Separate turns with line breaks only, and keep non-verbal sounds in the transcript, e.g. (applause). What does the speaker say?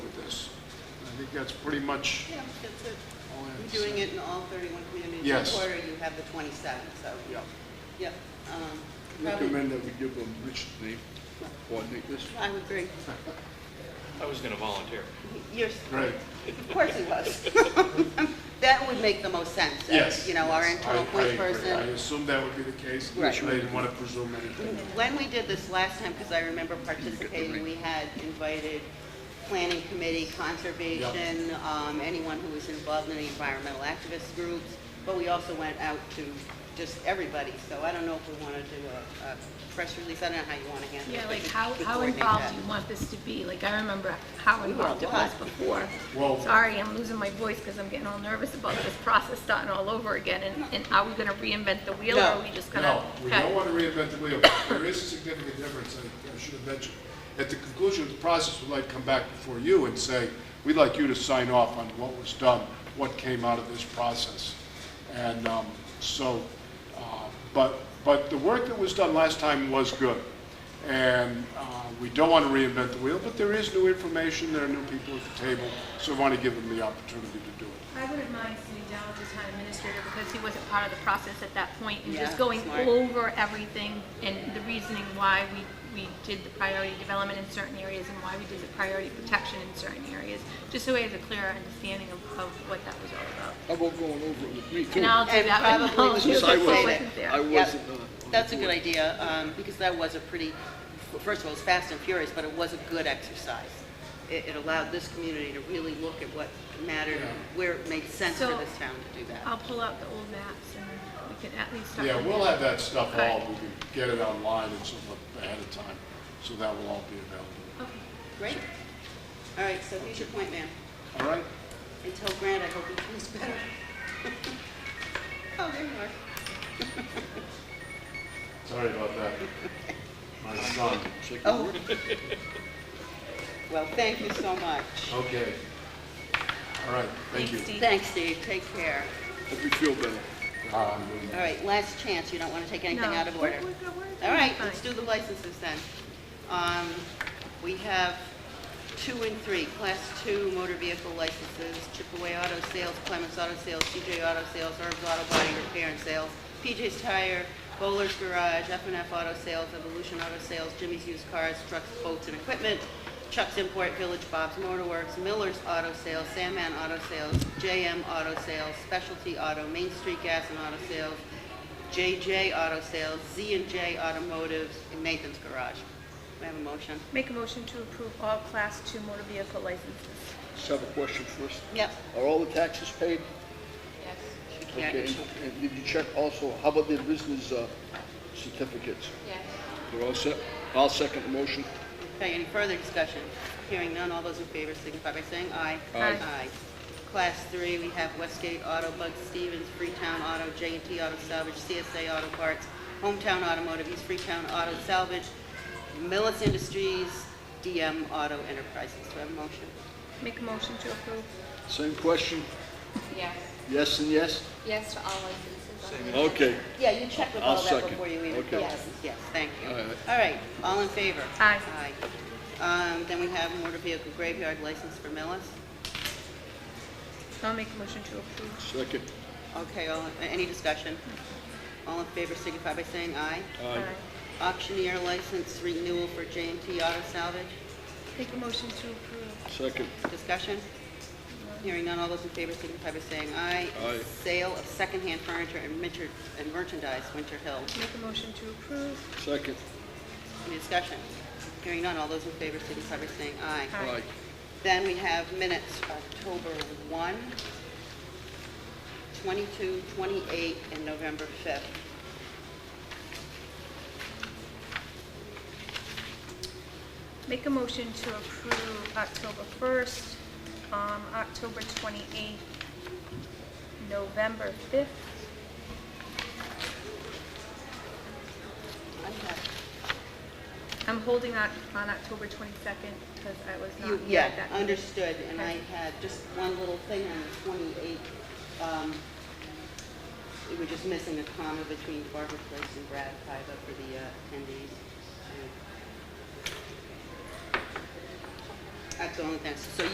that's pretty much
Yeah, that's it.
all I have to
You're doing
say.
it in all 31 communities.
Yes.
In Quarter, you have the 27, so,
Yeah.
yep. um, probably-
Recommend that we give them Rich's name, coordinate this.
I would agree.
I was going to volunteer.
You're,
Right.
of course it was. (laughs) That would make the most sense. uh,
Yes.
You know, our
yes. I-
internal
I
point
agree. I
person.
assumed that would be the case.
Right.
They didn't want to presume anything.
When we did this last time, because I remember participating, we had invited planning committee, conservation, um, anyone who was involved in the environmental activist groups, but we also went out to just everybody, so I don't know if we want to do a, a press release, I don't know how you want to handle it.
Yeah,
but
like
you-
how,
you
how
coordinate
involved
that.
do you want this to be? Like, I remember how
We were
involved it
a lot.
was before.
Well-
Sorry, I'm losing my voice because I'm getting all nervous about this process starting all over again. And, and are we gonna reinvent the wheel or
No.
are we just
No,
gonna?
we
Okay.
don't want to reinvent the wheel. There is a significant difference, I I should have mentioned. At the conclusion of the process, we'd like to come back before you and say, we'd like you to sign off on what was done, what came out of this process. And um, so, uh, but, but the work that was done last time was good. And uh, we don't want to reinvent the wheel, but there is new information, there are new people at the table, so we want to give them the opportunity to do it.
I wouldn't mind sitting down with the town administrator because he wasn't part of the process at that point and just
Yeah,
going
smart.
over everything and the reasoning why we, we did the priority development in certain areas and why we did the priority protection in certain areas, just so we have a clearer understanding of, of what that was all about.
How about going over it with me too?
And I'll do
And
that with
probably we
knowledge.
should
Since I
just say
I wasn't
wasn't, I
there.
wasn't.
Yep.
uh, on the
That's a good
board.
idea, um, because that was a pretty, first of all, it's fast and furious, but it was a good exercise. It, it allowed this community to really look at what mattered, where it made sense for
So- um,
this town to do that.
I'll pull out the old maps and we can at least start.
Yeah,
with
we'll
that.
have that stuff all,
Right.
we can get it online and so forth ahead of time, so that will all be available.
Okay.
Great. All right, so here's your point, ma'am.
All right?
And tell Grant I hope he feels better. (laughs) Oh, there you are.
Sorry about that. My
(laughs)
son.
Oh. (laughs) Well, thank you so much.
Okay. All right, thank you.
Thanks, Steve.
Thanks, Steve, take care.
Hope you feel better.
Ah, I'm doing
All
that.
right, last chance, you don't want to take anything
No.
out of
We're-
order.
we're good, we're good,
All right,
fine.
let's do the licenses then. Um, We have two and three, Class 2 motor vehicle licenses, Chipaway Auto Sales, Clements Auto Sales, CJ Auto Sales, Herb's Auto Body Repair and Sales, PJ's Tire, Bowler's Garage, f and F Auto Sales, Evolution Auto Sales, Jimmy's Used Cars, Trucks, Boats, and Equipment, Chuck's Import Village, Bob's Motor Works, Miller's Auto Sales, Sandman Auto Sales, JM Auto Sales, Specialty Auto, Main Street Gas and Auto Sales, JJ Auto Sales, z and J Automotive, and Nathan's Garage. We have a motion?
Make a motion to approve all Class 2 motor vehicle licenses.
Just have a question first.
Yep.
Are all the taxes paid?
Yes.
She can't-
Okay.
she-
And did you check also, how about their business uh, certificates?
Yes.
They're all set? I'll second the motion.
Okay, any further discussion? Hearing none, all those in favor signify by saying aye.
Aye.
Class three, we have Westgate Auto, Bug Stevens, Freetown Auto, j and T Auto Salvage, CSA Auto Parts, Hometown Automotive, East Freetown Auto Salvage, Millis Industries, DM Auto Enterprises. Do I have a motion?
Make a motion to approve.
Same question?
Yes,
Yes and yes?
yes to all licenses.
Okay.
Yeah, you check with
I'll
all that
second.
before you even
Okay.
go. Yes, thank you.
All right.
All right, all in favor?
Aye.
Aye. Um, Then we have motor vehicle graveyard license for Millis.
I'll make a motion to approve.
Second.
Okay, all, any discussion? All in favor signify by saying aye.
Aye.
Auctioneer license renewal for j and T Auto Salvage.
Make a motion to approve.
Second.
Discussion? Hearing none, all those in favor signify by saying aye.
Aye.
Sale of secondhand furniture and merchan- and merchandise, Winter Hill.
Make a motion to approve.
Second.
Any discussion? Hearing none, all those in favor signify by saying aye.
Aye.
Aye.
Then we have minutes October 1, 22, 28, and November 5th.
Make a motion to approve October 1st, um, October 28th, November 5th.
I have-
I'm holding that on October 22nd because I was
you-
not here
Yeah,
at that. meeting.
understood, and I
Okay.
had just one little thing on the 28th. Um, We were just missing a comma between Barbara Place and Brad Piva for the uh, attendees. Um, That's the only thing, so